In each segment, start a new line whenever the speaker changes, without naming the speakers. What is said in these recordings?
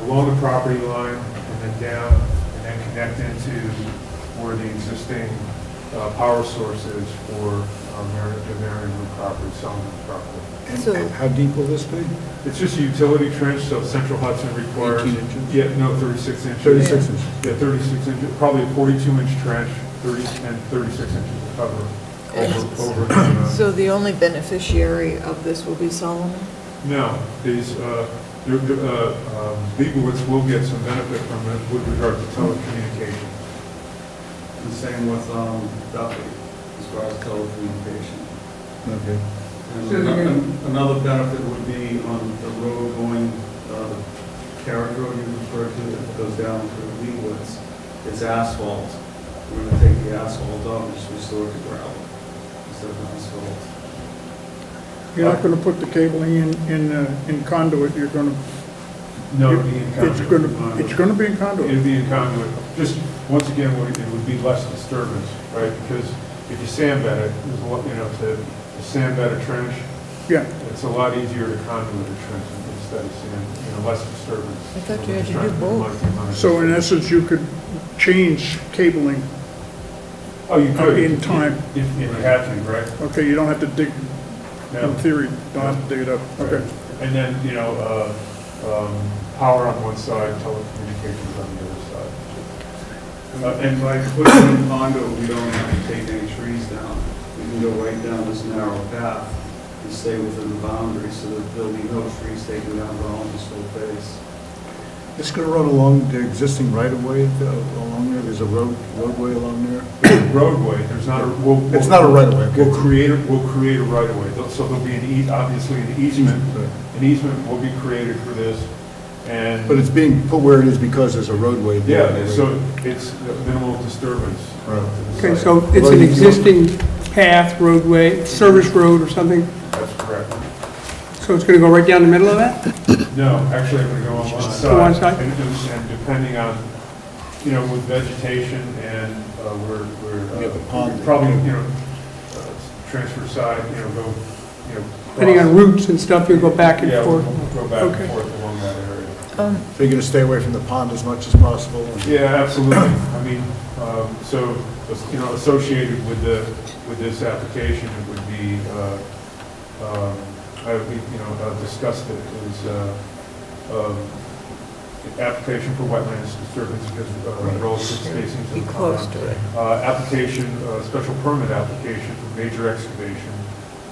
below the property line and then down, and then connect into where the existing uh, power source is for uh, Mary- the Marion Root property, Sullivan's property.
So-
And How deep will this be?
It's just a utility trench, so Central Hudson requires.
18 inches?
Yeah, no, 36 inches.
36 inches.
Yeah, 36 inches, probably a 42-inch trench, 30, and 36 inches of cover over, over. the, uh,
So the only beneficiary of this will be Solomon?
No, these, uh, there- there, uh, um, Leibowitz will get some benefit from it with regard to telecommunications.
The same with um, Duffy, as far as telecommunication.
Okay.
And
So they're gonna-
Another benefit would be on the road going, uh, the carriage road you referred to, that goes down through Lee Woods. It's asphalt. We're gonna take the asphalt off and just restore it to gravel instead of asphalt.
You're not gonna put the cabling in, in, uh, in conduit, you're gonna,
No, it'd be in
it's
conduit.
gonna, it's gonna be in
It'd
conduit.
be in conduit. Just, once again, it would- it would be less disturbance, right? Because if you sand bed it, there's a lot, you know, to to sand bed a trench,
Yeah,
it's a lot easier to conduit a trench instead of sand, you know, less disturbance.
I thought you had to
Trying
do both.
minimize the amount of
so in
disturbance.
essence, you could change cabling,
Oh, you could.
uh, in time.
If if you had to, right?
okay, you don't have to dig,
No.
in theory, don't have to dig it up, okay.
And then, you know, uh, um, power on one side, telecommunications on the other side.
Uh, And by putting it in condo, we don't have to take any trees down. We can go right down this narrow path and stay within the boundary so that there'll be no trees taken down the almost this whole face.
It's going to run along the existing right-of-way uh, along there, there's a road, roadway along there?
Roadway, there's not a, we'll. we'll-
It's not a right-of-way, okay.
We'll create, a- we'll create a right-of-way, There'll- so there'll be an eas, obviously an easement,
Right.
an easement will be created for this, and.
But it's being put where it is because there's a roadway there.
Yeah, so it's minimal disturbance.
Right.
Okay, so it's an existing path, roadway, service road or something,
That's correct.
so it's going to go right down the middle of that?
No, actually, I'm gonna go on one side.
Go one side?
And, and- and depending on, you know, with vegetation and, uh, we're, we're. uh,
You have the pond.
Probably, you know, uh, transfer side, you know, go, you know.
Depending on
cross-
routes and stuff, you'll go back and
Yeah, we'll
forth?
Go back and
Okay.
forth along that area.
Um,
So you're going to stay away from the pond as much as possible? and-
Yeah, absolutely. I mean, um, so, you know, associated with the, with this application, it would be, uh, um, I, we, you know, uh, discussed it, is, uh, um, application for wetlands disturbance because uh, relative spacing to
Be
the pond.
close to it.
Uh, application, uh, special permit application for major excavation,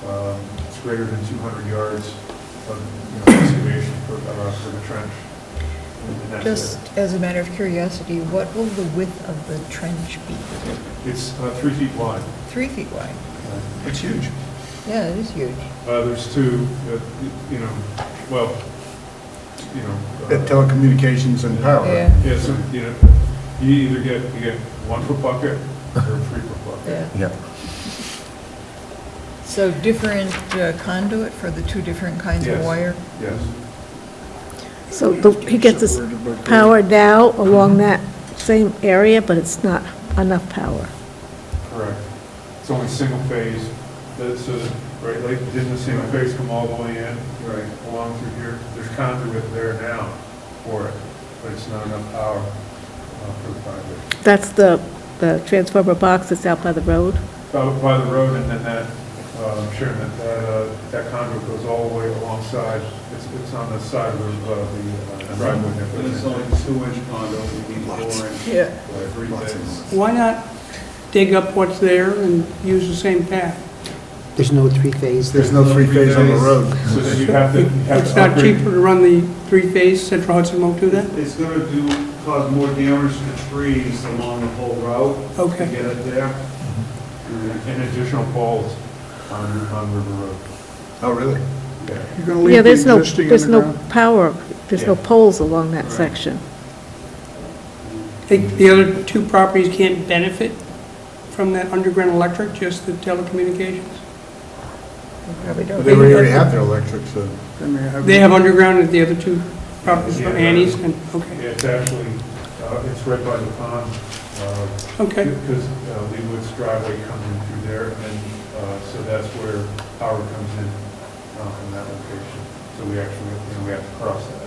um, it's greater than 200 yards of, you know, excavation for, uh, for the trench. And that's it.
Just as a matter of curiosity, what will the width of the trench be?
It's uh, three feet wide.
Three feet wide?
It's huge.
Yeah, it is huge.
Uh, There's two, that, you know, well, you know. uh,
At Telecommunications and power.
Yeah,
Yeah, so, you know, you either get, you get one per bucket or three per bucket.
yeah.
Yeah.
So different uh, conduit for the two different kinds of
Yes.
wire?
Yes.
So the- he gets his power now along that same area, but it's not enough power.
Correct. It's only single phase, that's, so that- right, like, didn't the single phase come all the way in
Right.
along through here? There's conduit there now for it, but it's not enough power uh, for the project.
That's the, the transformer box that's out by the road.
By- By the road, and then that, uh, Sharon, that- that, uh, that conduit goes all the way alongside, it's, it's on the side of uh, the uh, driveway. that
And
goes
it's
in.
only two-inch condo, we need four inch.
Yeah.
by Three
Lots and
days.
Why not dig up what's there and use the same path?
There's no three-phase.
There's no three-phase on the road.
So then you have to, you have
It's
to
not
upgrade.
cheaper to run the three-phase Central Hudson won't do that?
It's gonna do, cause more damage to trees along the whole route.
Okay.
To get it there. And
And additional poles on, on River Road.
Oh, really?
Yeah.
You're gonna
Yeah,
leave the
there's no,
existing
there's no
underground?
power, there's no
Yeah.
poles along that
Right.
section.
Think the other two properties can't benefit from that underground electric, just the telecommunications?
We probably
But
don't.
They already have their electric, so.
They may have-
They have underground at the other two properties, Annie's and, okay,
It's actually, uh, it's right by the pond, uh,
okay.
Because uh, Leewood's driveway comes in through there, and then, uh, so that's where power comes in uh, from that location. So we actually, you know, we have to cross that.